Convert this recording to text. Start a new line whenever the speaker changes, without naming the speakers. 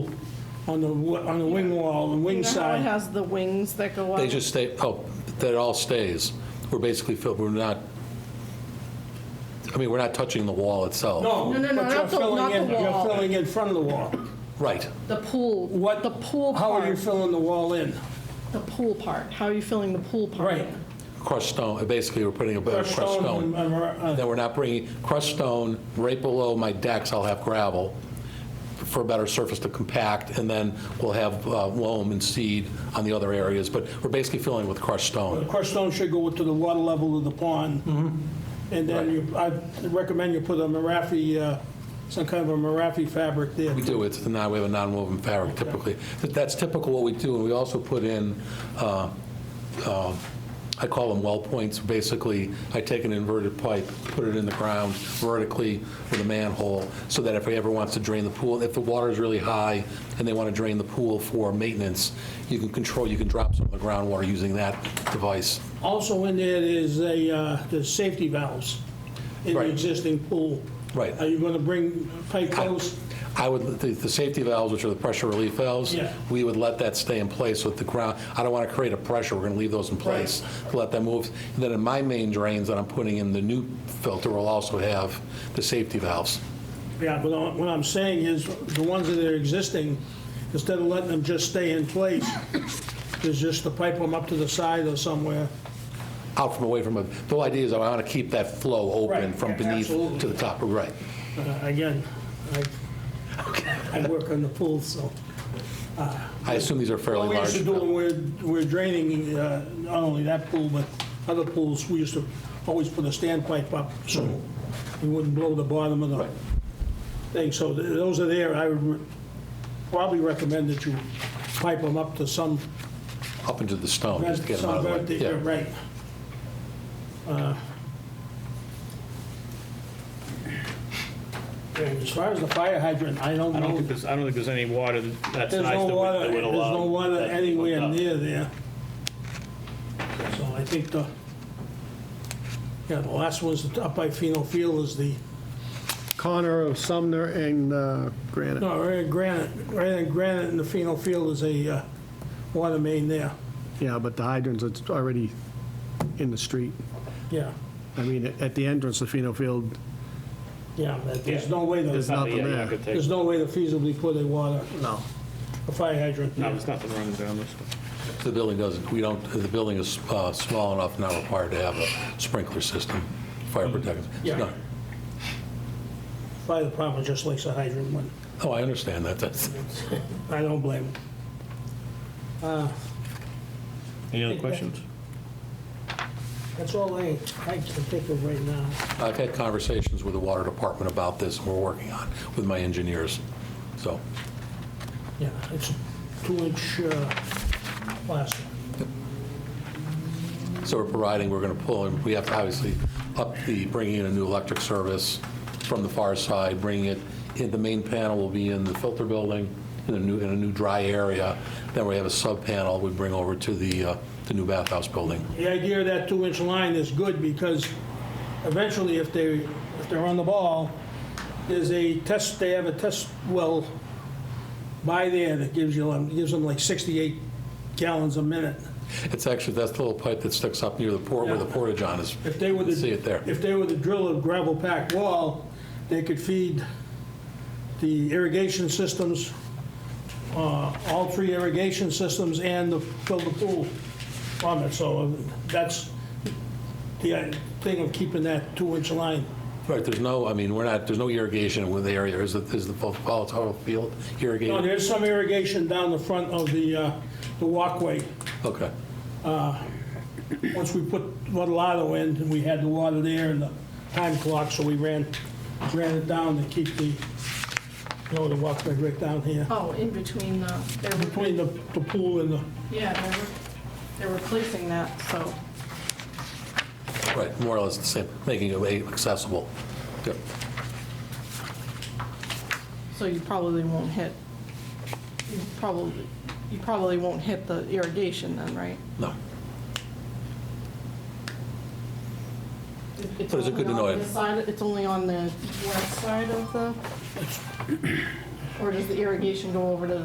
on the, w- on the wing wall, the wing
You know how it
side.
has the wings that go up?
They just stay, oh, that all stays. We're basically, fill- we're not, I mean, we're not touching the wall itself.
No,
No,
but
no, no,
you're
not the-
filling
not
in,
the
you're
wall.
filling in front of the wall.
Right.
The pool,
What?
the pool
How are you
part,
filling the wall in?
the pool part, how are you filling the pool part?
Right.
in?
Crushed stone, basically, we're putting a bit of
Crushed
crushed
stone,
stone.
uh,
Then we're not bringing, crushed stone, right below my decks, I'll have gravel for a better surface to compact, and then we'll have uh, loam and seed on the other areas, but we're basically filling with crushed
The
stone.
crushed stone should go to the water level of the pond.
Mm-hmm.
And then you, I recommend you put a Marafi, uh, some kind of a Marafi fabric there.
We do, it's, the non- we have a non-woven fabric typically. That- That's typical what we do, and we also put in, uh, uh, I call them well points, basically, I take an inverted pipe, put it in the ground vertically with a manhole, so that if he ever wants to drain the pool, if the water is really high and they want to drain the pool for maintenance, you can control, you can drop some of the groundwater using that device.
Also in there is a, uh, the safety valves in the
Right.
existing pool.
Right.
Are you going to bring pipe those?
I would, the, the safety valves, which are the pressure relief valves,
Yeah.
we would let that stay in place with the ground. I don't want to create a pressure, we're going to leave those in place, let them move. And then in my main drains that I'm putting in, the new filter will also have the safety valves.
Yeah, but I- what I'm saying is, the ones that are existing, instead of letting them just stay in place, is just to pipe them up to the side or somewhere.
Out from away from, a- the whole idea is I want to keep that flow open
Right,
from
yeah,
beneath
absolutely.
to the top, right.
Uh, Again, I, I work on the pool, so.
I assume these are
Well,
fairly
we used
large. uh,
to do, when we're- we're draining, uh, not only that pool, but other pools, we used to always put a standpipe up, so we wouldn't blow the bottom of the thing. So th- those are there, I would re- probably recommend that you pipe them up to some
Up into the stone, just to get them out of the way.
Somewhere,
Yeah.
Right. Uh, and As far as the fire hydrant, I don't
I don't think
know.
there's, I don't think there's any water that's nice
There's
that
no
would-
water,
that
there's
would allow.
no water
that to be hooked
anywhere
up.
near there. So I think the, yeah, the last one's up by Pheno Field is the,
Connor of Sumner and uh, Granite.
no, right at Granite, right at Granite and the Pheno Field is a uh, water main there,
Yeah, but the hydrants, it's already in the street.
yeah,
I mean, at the entrance to Pheno Field,
yeah, that- there's no way
There's
to,
nothing, yeah,
nothing
you're
there.
not gonna take,
there's no way to feasibly put a water,
no.
a fire hydrant.
no,
there.
there's nothing running down this one.
The building doesn't, we don't, the building is uh, small enough, not required to have a sprinkler system, fire protection.
Hmm. Yeah.
No.
Fire department just likes a hydrant one.
Oh, I understand that, that's.
I don't blame them.
Any other questions?
That's all I, I can think of right now.
I've had conversations with the water department about this, and we're working on, it with my engineers, so.
Yeah, it's a two-inch uh, plastic.
So we're providing, we're going to pull, and we have to obviously up the, bringing in a new electric service from the far side, bringing it, in the main panel will be in the filter building, in a new, in a new dry area. Then we have a sub-panel we bring over to the, uh, the new bathhouse building.
The idea of that two-inch line is good because eventually if they, if they're on the ball, there's a test, they have a test well by there that gives you, um, gives them like 68 gallons a minute.
It's actually, that's the little pipe that sticks up near the port, where the
Yeah.
portage on is.
If they were
See
to,
it there.
if they were to drill a gravel packed wall, they could feed the irrigation systems, uh, all three irrigation systems and the, fill the pool from it. So uh, that's the uh, thing of keeping that two-inch line.
Right, there's no, I mean, we're not, there's no irrigation with the area, is it, is the volatile field irrigated?
Now, there's some irrigation down the front of the, uh, the walkway.
Okay,
Once we put Vadalato in, and we had the water there and the time clock, so we ran, ran it down to keep the, you know, the walkway right down here.
Oh, in between the, they're,
Between the, the pool and the,
yeah, they're, they're replacing that, so.
right, more or less the same, making it accessible. Yep.
So you probably won't hit, you probably, you probably won't hit the irrigation then, right?
No,
It's
But is it good to
only
know
on
it?
the side- It's only on the west side of the, or does the irrigation go over to